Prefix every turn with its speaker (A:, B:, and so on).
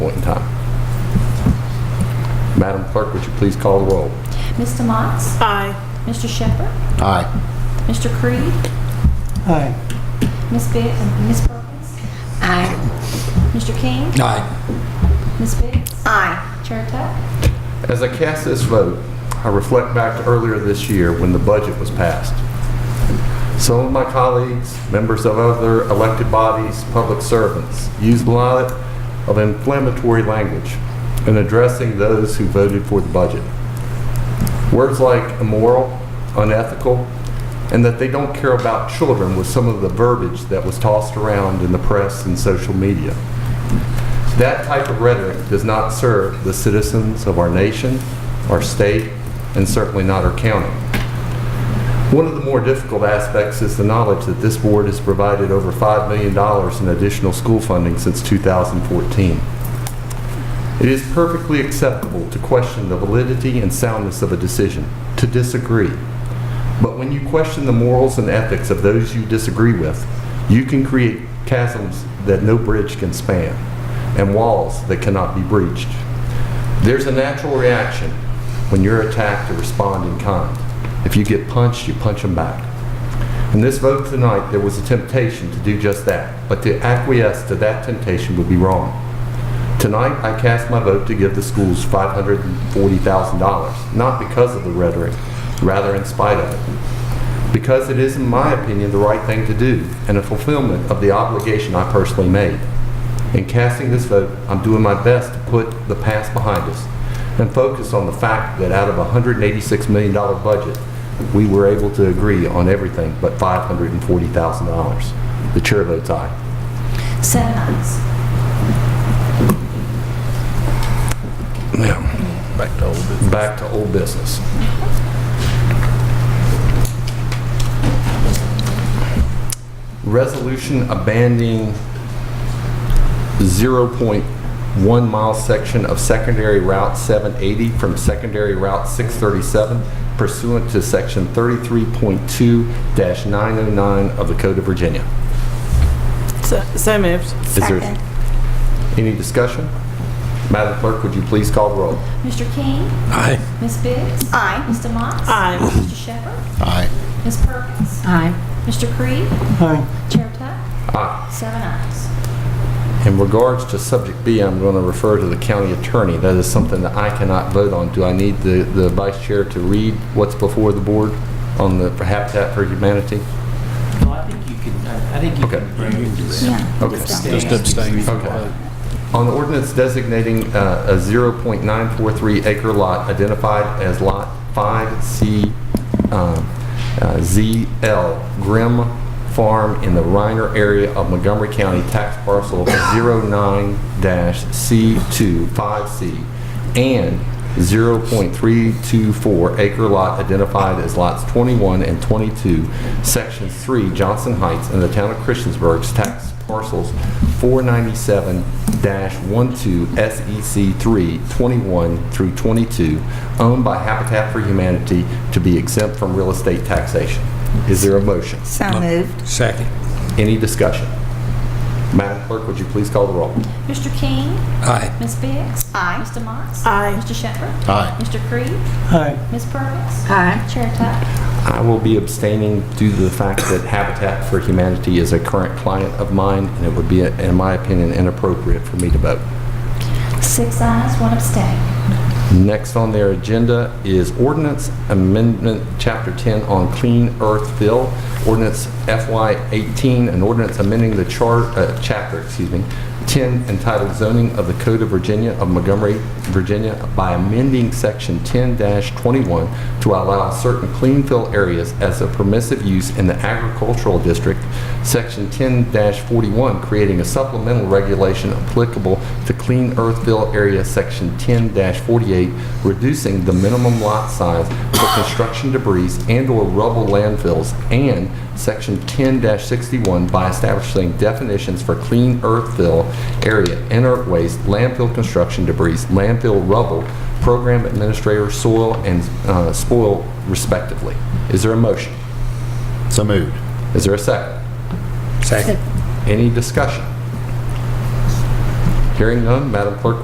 A: point in time. Madam Clerk, would you please call the roll?
B: Mr. Motts?
C: Aye.
B: Mr. Shepherd?
A: Aye.
B: Mr. Creed?
C: Aye.
B: Miss Biggs? Miss Perkins? Aye. Mr. King?
A: Aye.
B: Miss Biggs? Aye. Chair Tuck?
A: As I cast this vote, I reflect back to earlier this year when the budget was passed. Some of my colleagues, members of other elected bodies, public servants, used a lot of inflammatory language in addressing those who voted for the budget. Words like immoral, unethical, and that they don't care about children was some of the verbiage that was tossed around in the press and social media. That type of rhetoric does not serve the citizens of our nation, our state, and certainly not our county. One of the more difficult aspects is the knowledge that this board has provided over $5 million in additional school funding since 2014. It is perfectly acceptable to question the validity and soundness of a decision, to disagree. But when you question the morals and ethics of those you disagree with, you can create chasms that no bridge can span and walls that cannot be breached. There's a natural reaction when you're attacked to respond in kind. If you get punched, you punch them back. In this vote tonight, there was a temptation to do just that, but to acquiesce to that temptation would be wrong. Tonight, I cast my vote to give the schools $540,000, not because of the rhetoric, rather in spite of it. Because it is, in my opinion, the right thing to do and a fulfillment of the obligation I personally made. In casting this vote, I'm doing my best to put the past behind us and focus on the fact that out of a $186 million budget, we were able to agree on everything but $540,000. The chair votes aye.
B: Seven ayes.
A: Yeah. Back to old business. Back to old business. Resolution abandoning 0.1 mile section of secondary Route 780 from secondary Route 637 pursuant to Section 33.2-909 of the Code of Virginia.
C: So, so moved.
A: Is there Any discussion? Madam Clerk, would you please call the roll?
B: Mr. King?
A: Aye.
B: Miss Biggs? Aye. Mr. Motts?
C: Aye.
B: Mr. Shepherd?
A: Aye.
B: Miss Perkins?
D: Aye.
B: Mr. Creed?
C: Aye.
B: Chair Tuck?
A: Aye.
B: Seven ayes.
A: In regards to subject B, I'm going to refer to the county attorney. That is something that I cannot vote on. Do I need the, the vice chair to read what's before the board on the Habitat for Humanity?
E: No, I think you can, I I think you
A: Okay.
E: can bring it to that.
A: Okay.
E: Just abstain.
A: Okay. On ordinance designating uh, a 0.943 acre lot identified as Lot 5C, um, uh, ZL Grimm Farm in the Reiner area of Montgomery County, tax parcel 09-C25C, and 0.324 acre lot identified as lots 21 and 22, section 3, Johnson Heights, in the town of Christiansburg's tax parcels 497-12 SEC 3, 21 through 22, owned by Habitat for Humanity to be exempt from real estate taxation. Is there a motion?
D: So moved.
E: Second.
A: Any discussion? Madam Clerk, would you please call the roll?
B: Mr. King?
E: Aye.
B: Miss Biggs? Aye. Mr. Motts?
C: Aye.
B: Mr. Shepherd?
A: Aye.
B: Mr. Creed?
C: Aye.
B: Miss Perkins?
D: Aye.
B: Chair Tuck?
A: I will be abstaining due to the fact that Habitat for Humanity is a current client of mine, and it would be, in my opinion, inappropriate for me to vote.
B: Six ayes, one abstain.
A: Next on their agenda is ordinance amendment, Chapter 10 on Clean Earth Bill, ordinance FY 18, an ordinance amending the chart, uh, chapter, excuse me, 10 entitled zoning of the Code of Virginia of Montgomery, Virginia by amending Section 10-21 to allow certain clean fill areas as a permissive use in the agricultural district, Section 10-41 creating a supplemental regulation applicable to clean earth fill area, Section 10-48 reducing the minimum lot size for construction debris and/or rubble landfills, and Section 10-61 by establishing definitions for clean earth fill area, inert waste, landfill construction debris, landfill rubble, program administrator soil and uh, spoil respectively. Is there a motion?
F: So moved.
A: Is there a second?
E: Second.
A: Any discussion? Hearing none, Madam Clerk,